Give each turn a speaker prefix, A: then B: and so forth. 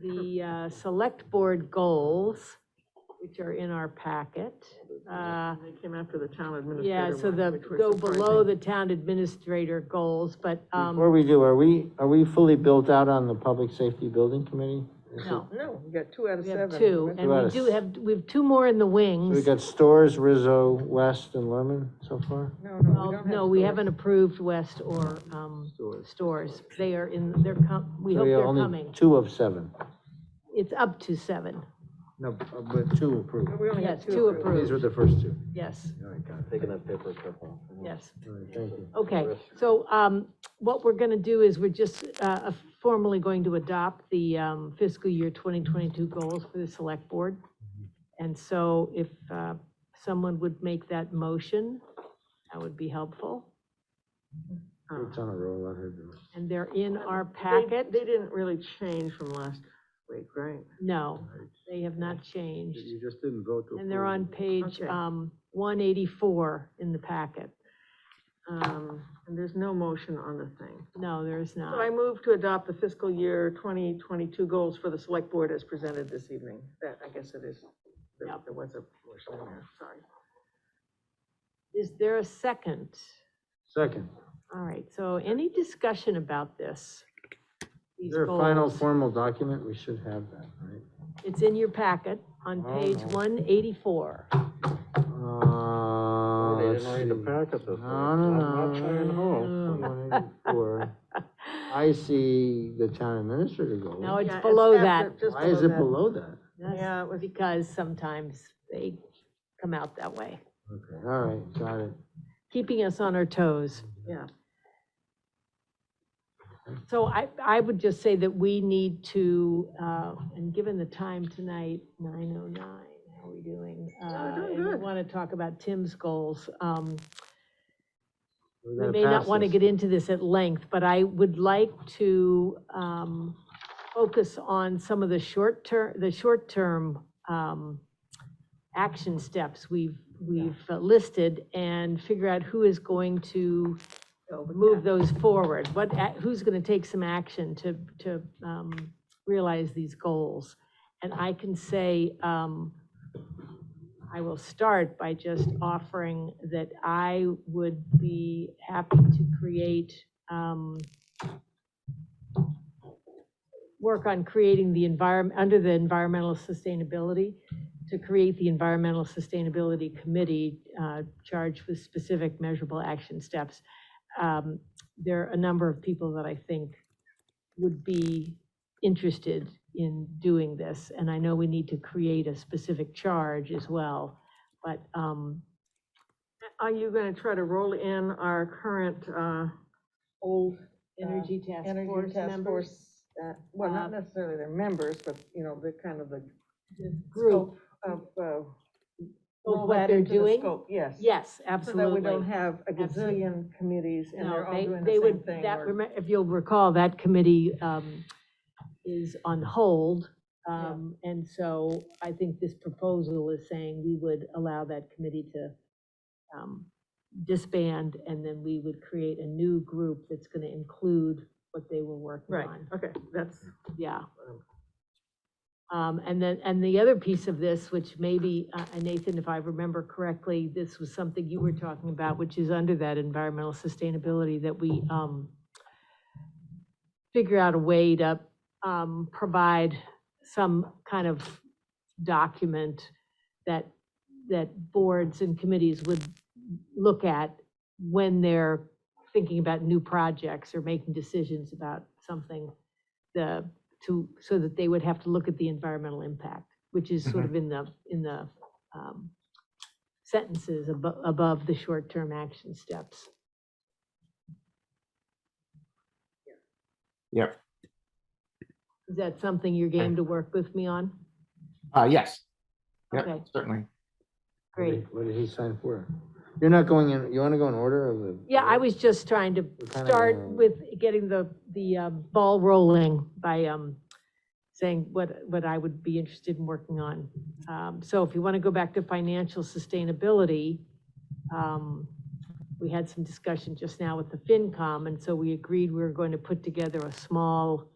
A: the uh, select board goals, which are in our packet. Uh,
B: They came after the town administrator
A: Yeah, so
B: one,
A: the,
B: which was
A: go below
B: surprising.
A: the town administrator goals, but,
C: Before
A: um,
C: we do, are we, are we fully built out on the Public Safety Building Committee? Is it-
A: no,
B: No, we got two out of
A: we
B: seven.
A: have two, and we
C: Yes.
A: do have, we have two more in the
C: So we
A: wings.
C: got Stores, Rizzo, West, and Lerman so far?
B: No, no,
A: Well,
B: we don't have.
A: No, we
B: stores.
A: haven't approved West or, um,
C: Stores.
A: stores, they are in, they're com, we
C: So
A: hope
C: yeah,
A: they're
C: only
A: coming.
C: Two of seven.
A: It's up to seven,
C: No, but two approved.
B: We only
A: yes,
B: had
A: two
B: two approved.
C: These were
A: approved,
C: the first two.
A: yes,
C: All right, got it.
D: Taking that paper clip off.
A: yes. Oh.
C: All right, thank you.
A: Okay,
D: Rest.
A: so um, what we're going to do is we're just uh, formally going to adopt the um, fiscal year 2022 goals for the select board. And so if uh, someone would make that motion, that would be helpful. Uh,
C: It's on a roll, I heard you.
A: And they're in our
B: They-
A: packet?
B: They didn't really change from last week, right?
A: No, they have not changed.
C: just didn't vote to.
A: And they're on page
B: Okay.
A: um, 184 in the packet.
B: Um, and there's no motion on the thing.
A: No, there is
B: So I
A: not.
B: move to adopt the fiscal year twenty twenty-two goals for the select board as presented this evening. That, I guess it is, there
A: Yep.
B: there was a motion in there, sorry.
A: Is there a second?
C: Second,
A: All right, so any discussion about this?
C: is
A: These
C: there a final
A: goals?
C: formal document? We should have that, right?
A: It's in your packet on
C: Oh,
A: page
C: no.
A: one eighty-four.
C: Uh,
D: They
C: let's
D: didn't read the
C: see.
D: packet this week.
C: No, no, no.
D: I'm not trying to
C: no, no, no, no, no, no. I see the town administrator goal.
A: No, it's
B: Yeah,
A: below
B: after-
A: that.
B: just
C: Why is it
B: Oh, that.
C: below that?
B: Yeah, it was-
A: Because sometimes they come out that way,
C: Okay, all right, got it.
A: keeping us on our toes.
B: Yeah,
A: So I, I would just say that we need to, uh, and given the time tonight, nine oh nine, how are we doing?
B: we're doing
A: Uh, and
B: good.
A: we Want to talk about Tim's goals. Um,
C: We're
A: We
C: gonna
A: may not
C: pass
A: want to
C: this.
A: get into this at length, but I would like to um, focus on some of the short term, the short term um, action steps we've, we've uh, listed and figure out who is going to move those forward. What, a- who's going to take some action to, to um, realize these goals? And I can say, um, I will start by just offering that I would be happy to create, um, work on creating the environment, under the environmental sustainability, to create the Environmental Sustainability Committee uh, charged with specific measurable action steps. Um, There are a number of people that I think would be interested in doing this, and I know we need to create a specific charge as well, but, um,
B: are you gonna try to roll in our current, uh, old? uh,
A: Energy Task
B: Energy
A: Force
B: Task
A: members?
B: Force, uh, well,
A: Uh,
B: not necessarily their members, but, you know, the kind of the
A: the Group,
B: scope of, uh.
A: of
B: roll
A: what
B: that
A: they're
B: into the
A: doing?
B: scope, Yes.
A: Yes,
B: So that we don't
A: absolutely.
B: have a
A: Absolutely.
B: gazillion committees and
A: No,
B: they're all
A: they-
B: doing
A: they
B: the same
A: would-
B: thing.
A: that
B: or-
A: remem- If you'll recall, that committee um, is on hold.
B: Yeah.
A: um, And so I think this proposal is saying we would allow that committee to um, disband, and then we would create a new group that's going to include what they were working
B: Right,
A: on.
B: okay, that's,
A: Yeah. Um, and then, and the other piece of this, which maybe, uh, and Nathan, if I remember correctly, this was something you were talking about, which is under that environmental sustainability, that we, um, figure out a way to, um, provide some kind of document that, that boards and committees would look at when they're thinking about new projects or making decisions about something, the, to, so that they would have to look at the environmental impact, which is sort of in the, in the um, sentences above, above the short-term action steps.
E: Yeah.
A: Is that something you're game to work with me on?
E: Uh, yes. Yeah,
A: Okay.
E: certainly.
C: What did-
A: Great.
C: What did he sign for? You're not going in, you wanna go in order of the?
A: Yeah, I was just trying to
C: We're kinda
A: start
C: in-
A: with getting the, the uh, ball rolling by um, saying what, what I would be interested in working on. Um, So if you want to go back to financial sustainability, um, we had some discussion just now with the FinCom, and so we agreed we were going to put together a small